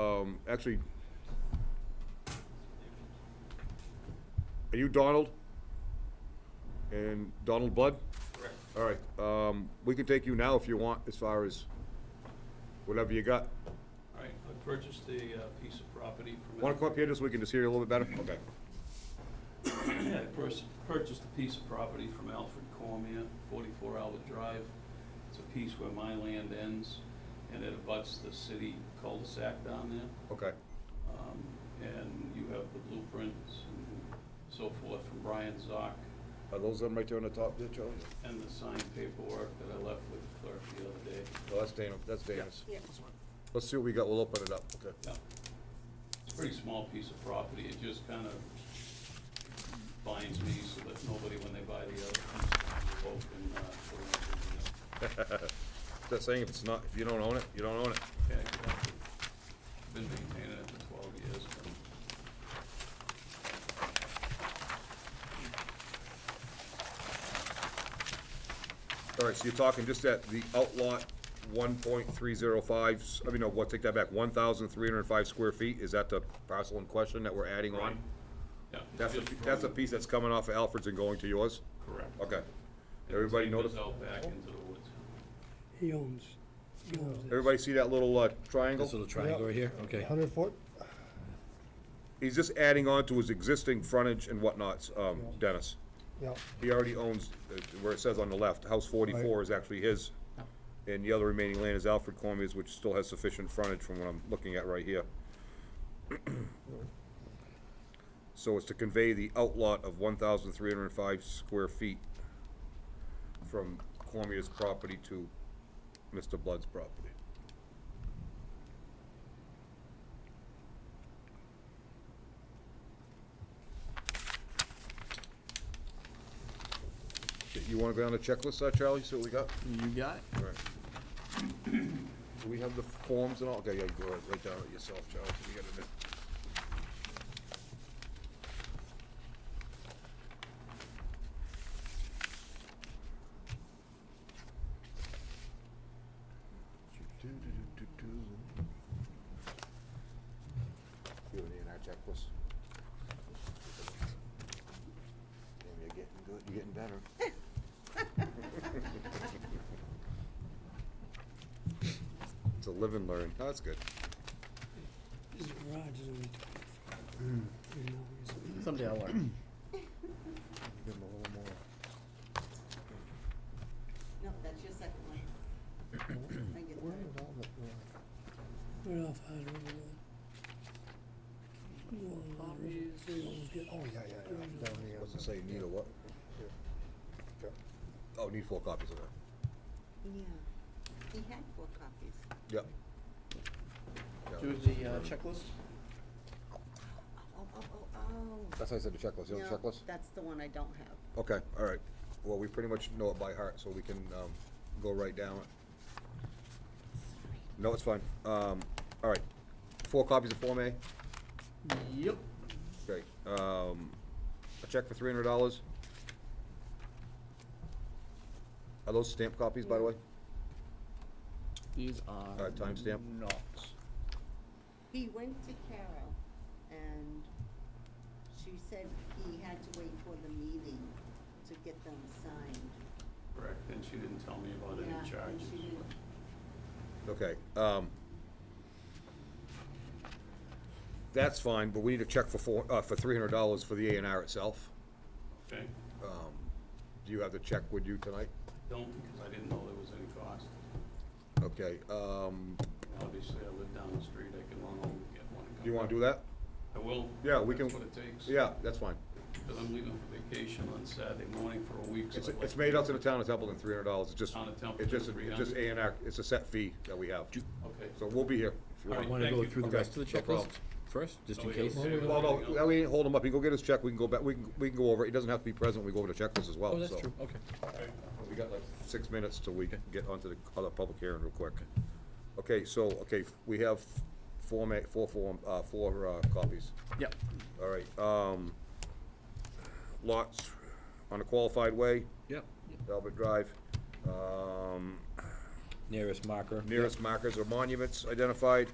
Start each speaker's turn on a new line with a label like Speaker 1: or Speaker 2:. Speaker 1: um, actually, are you Donald? And Donald Blood?
Speaker 2: Correct.
Speaker 1: All right, um, we can take you now if you want, as far as whatever you got.
Speaker 2: All right, I purchased a uh, piece of property from.
Speaker 1: Want to come up here just so we can just hear you a little bit better? Okay.
Speaker 2: Yeah, I purs- purchased a piece of property from Alfred Cormier, 44 Albert Drive. It's a piece where my land ends, and it abuts the city cul-de-sac down there.
Speaker 1: Okay,
Speaker 2: Um, And you have the blueprints and so forth from Brian Zock,
Speaker 1: are those them right there on the top there, Charlie?
Speaker 2: and the signed paperwork that I left with the clerk the other day.
Speaker 1: Oh, that's Dana, that's Dana's.
Speaker 3: Yeah.
Speaker 1: Let's see what we got, we'll open it up, okay?
Speaker 2: Yeah. It's a pretty small piece of property, it just kind of binds me so that nobody, when they buy the other piece, can vote and, uh, put it in
Speaker 1: Is that saying if it's not, if you don't own it, you don't own it?
Speaker 2: the, uh, yeah, exactly. Been maintaining it for twelve years. but-
Speaker 1: All right, so you're talking just at the outlot one point three zero five, I mean, no, what, take that back, one thousand three hundred and five square feet, is that the parcel in question that we're adding on?
Speaker 2: Yeah. it's
Speaker 1: That's, a-
Speaker 2: just
Speaker 1: that's a
Speaker 2: from-
Speaker 1: piece that's coming off of Alfred's and going to yours?
Speaker 2: Correct.
Speaker 1: Okay. Everybody
Speaker 2: Take this
Speaker 1: notice,
Speaker 2: out back into the woods.
Speaker 4: He owns, he owns it.
Speaker 1: everybody see that little uh,
Speaker 5: This
Speaker 1: triangle?
Speaker 5: little triangle right here, okay.
Speaker 4: Hundred foot?
Speaker 1: He's just adding on to his existing frontage and whatnots, um, Dennis.
Speaker 4: Yeah,
Speaker 1: He already owns, uh, where it says on the left, house forty-four
Speaker 4: Right.
Speaker 1: is actually his. And the other remaining land is Alfred Cormier's, which still has sufficient frontage from what I'm looking at right here. So it's to convey the outlot of one thousand three hundred and five square feet from Cormier's property to Mr. Blood's property. You wanna go down the checklist, uh, Charlie, see what we got?
Speaker 6: You got it.
Speaker 1: Right. Do we have the forms and all? Okay, yeah, go ahead, write down it yourself, Charles, if you got a minute. You have an A and R checklist? Damn, you're getting good, you're getting better. It's a live and learn. No, that's good.
Speaker 4: his garage is only twenty.
Speaker 6: Someday I'll learn.
Speaker 3: No, that's your second one. I get that.
Speaker 4: Right off Hard River Road. Go on Hard River, so you almost get-
Speaker 7: Oh, yeah, yeah, yeah, down here.
Speaker 1: What's it say, need a what?
Speaker 7: Yeah.
Speaker 1: Oh, need four copies of that.
Speaker 3: Yeah. He had four copies.
Speaker 1: Yep. Yeah,
Speaker 6: Do
Speaker 1: that's-
Speaker 6: the uh, checklist?
Speaker 3: Oh, oh, oh, oh, oh.
Speaker 1: That's how I said the checklist, you know the
Speaker 3: No,
Speaker 1: checklist?
Speaker 3: That's the one I don't have.
Speaker 1: Okay, all right. Well, we pretty much know it by heart, so we can, um, go right down it. No, it's fine. Um, all right. Four copies of Form A?
Speaker 6: Yep.
Speaker 1: Great. Um, a check for three hundred dollars? Are those stamped copies, by the way?
Speaker 6: These are.
Speaker 1: Uh, timestamp?
Speaker 6: Not.
Speaker 3: He went to Carol and she said he had to wait for the meeting to get them signed.
Speaker 2: Correct, and she didn't tell me about
Speaker 3: Yeah,
Speaker 2: any
Speaker 3: and
Speaker 2: charges.
Speaker 3: she didn't-
Speaker 1: Okay, um, that's fine, but we need a check for four, uh, for three hundred dollars for the A and R itself.
Speaker 2: Okay,
Speaker 1: Um, do you have the check with you tonight?
Speaker 2: don't, because I didn't know there was any cost.
Speaker 1: Okay, um,
Speaker 2: Obviously, I live down the street, I can run over and get one. and
Speaker 1: do you
Speaker 2: come
Speaker 1: wanna
Speaker 2: back.
Speaker 1: do that?
Speaker 2: I will.
Speaker 1: Yeah, we can.
Speaker 2: That's what it takes.
Speaker 1: Yeah, that's fine.
Speaker 2: Because I'm leaving for vacation on Saturday morning for a week, so
Speaker 1: It's,
Speaker 2: I'd like.
Speaker 1: it's made up to the town of Templeton, three hundred dollars, it's just,
Speaker 2: Town of Templeton,
Speaker 1: it's just, it's just
Speaker 2: 300.
Speaker 1: A and R, it's a set fee that we have.
Speaker 2: Okay.
Speaker 1: So we'll be here. if you
Speaker 2: All
Speaker 1: want.
Speaker 2: right,
Speaker 5: Want to
Speaker 2: thank
Speaker 5: go
Speaker 2: you.
Speaker 5: through the
Speaker 1: Okay,
Speaker 5: rest of the
Speaker 1: no
Speaker 5: checklist
Speaker 1: problem.
Speaker 5: first, just in
Speaker 2: Oh, yeah,
Speaker 5: case?
Speaker 2: okay,
Speaker 1: Well,
Speaker 2: everything
Speaker 1: no,
Speaker 2: else.
Speaker 1: that way we can hold him up, he can go get his check, we can go back, we can, we can go over, it. he doesn't have to be present, we go over the checklist as well,
Speaker 5: Oh, that's
Speaker 1: so.
Speaker 5: true, okay.
Speaker 2: Okay.
Speaker 1: Oh, We got like six minutes till we get onto the other public hearing real quick. Okay, so, okay, we have four ma, four form, uh, four, uh, copies.
Speaker 6: Yep.
Speaker 1: All right, um, lots on a qualified way,
Speaker 5: Yep.
Speaker 1: Albert Drive. Um,
Speaker 5: Nearest marker.
Speaker 1: nearest markers or monuments identified.